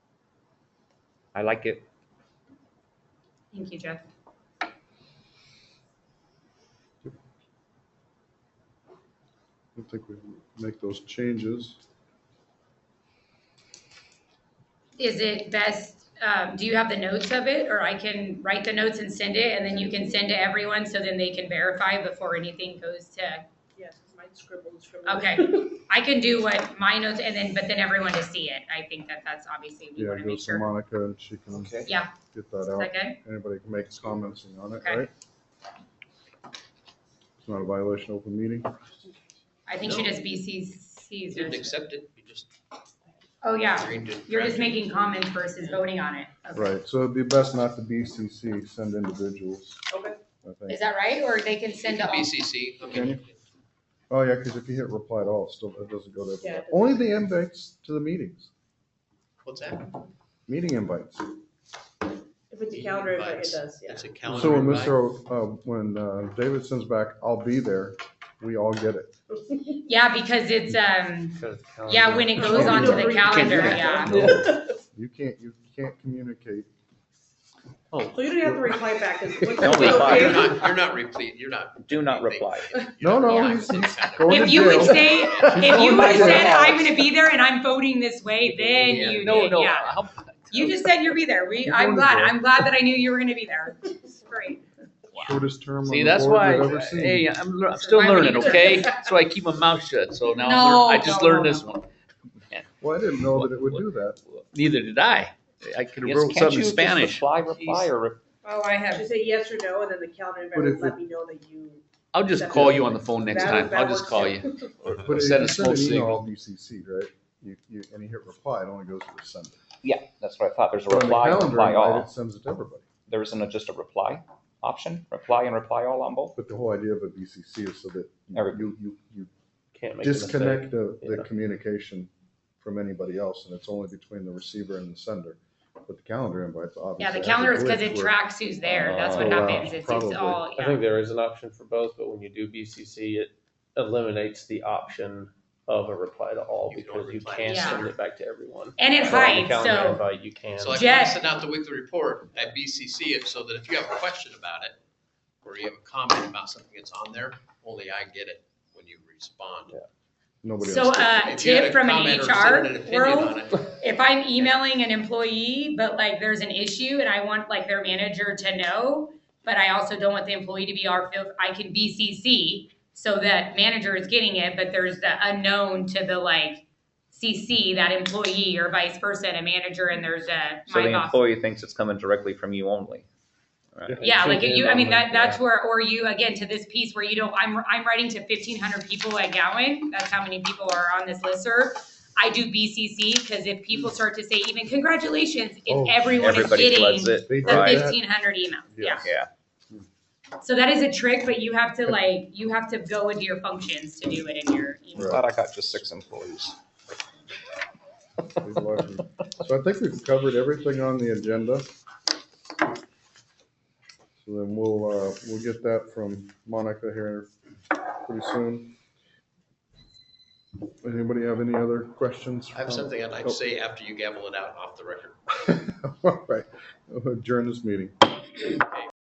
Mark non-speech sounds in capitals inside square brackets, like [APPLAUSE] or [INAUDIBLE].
I like it. Thank you, Jeff. I think we make those changes. Is it best, um, do you have the notes of it, or I can write the notes and send it, and then you can send to everyone, so then they can verify before anything goes to, Yes, mine scribbles from. okay. I can do what my notes, and then, but then everyone to see it, I think that that's obviously, we Yeah, wanna go make to sure. Monica and she can Okay. Yeah. get that Is out. that good? Anybody can make comments on it, Okay. right? It's not a violation of open meeting. I think she No. just BCC's. Didn't accept it, you just Oh, yeah, agreed to. you're just draft it. making comments versus voting on it. Okay. Right, so it'd be best not to BCC, send individuals, Okay. I Is think. that right, or they can send to all? BCC, Can okay. you? Oh, yeah, because if you hit reply to all, it still, it doesn't go to everybody. Yeah, it doesn't. Only the invites to the meetings, What's that? meeting invites. [LAUGHS] If it's a calendar, invite, it Invites. does, yeah. [LAUGHS] It's a calendar. So when invite. Mr., O- uh, when uh, David sends back, I'll be there, we all get it. Yeah, because it's, um, Go to the yeah, calendar. when it Uh, goes Yeah. onto Can't the do calendar, that. yeah. [LAUGHS] You can't, you can't communicate. So you don't have to reply back, because. Don't reply. You're not, you're not replete, you're not. Do not reply. No, no, Yeah. [LAUGHS] he's he's going to If you would jail. say, if you would have said, I'm gonna be there and I'm voting this way, then Yeah. you No, did, no. yeah. how- You just said you'll be there. We, You're I'm going to glad, jail. I'm glad that I knew you were gonna be there. It's Great. Shortest term on [LAUGHS] See, the that's board why, we've ever seen. hey, I'm, lear- I'm So still why would learning, you- okay? So I keep my mouth shut, so now I'm No, learn- I just no, learned no, this no. one. Well, I didn't know that it would do that. Neither did I. I could have Yes, wrote can't something you in just Spanish. Reply, reply, Jeez. or re- Oh, I have, Just say yes or no, and then the calendar invite But will if let me know that you. I'll just call you on the phone next that- time. that I'll just works call too. you. Or- But or if Send you a send smoke an signal. email, BCC, right? You, you, and you hit reply, it only goes to the sender. yeah, that's what I thought. There's a But on the reply, calendar reply invite, all. It sends it to everybody. There isn't a- just a reply option, reply and reply all on both? But the whole idea of a BCC is so that Every- you, you, you Can't make a mistake. disconnect the, the yeah. communication from anybody else, and it's only between the receiver and the sender. But the calendar invites obviously. yeah, the has a calendar is because glitch it where- tracks who's there. That's Oh, what wow. happens. It's, it's Probably. all, I yeah. think there is an option for both, but when you do BCC, it eliminates the option of a reply to all You can because only you reply can't to send it back to everyone. And it So on the hides, calendar so, invite, You can. So like when I Jeff. send out the weekly report, I BCC it so that if you have a question about it, or you have a comment about something that's on there, only I get it when you respond. Nobody so, else. gets uh, If you had a tip from an comment or sent an HR opinion world, on it, if I'm emailing an employee, but like there's an issue and I want like their manager to know, but I also don't want the employee to be our field, I can BCC so that manager is getting it, but there's the unknown to the like CC, that employee or vice versa, and a manager, and there's a So my the boss. employee thinks it's coming directly from you only. Yeah, like you, I mean, that, that's Yeah. where, or you, again, to this piece where you don't, I'm, I'm writing to fifteen hundred people at Gowan, that's how many people are on this listserv. I do BCC, cause if people start to say even congratulations, Oh, if everyone is Everybody floods getting it. They the Right. Right. fifteen hundred emails, yeah. Yes. Yeah. So that is a trick, but you have to like, you have to go into your functions to do it in your Right. email. Glad I got just six employees. We've largely- So I think we've covered everything on the agenda. So then we'll, uh, we'll get that from Monica here pretty soon. Anybody have any other questions? I have something I'd like Oh. to say [LAUGHS] after you gavel it out off the record. All right, adjourn this meeting.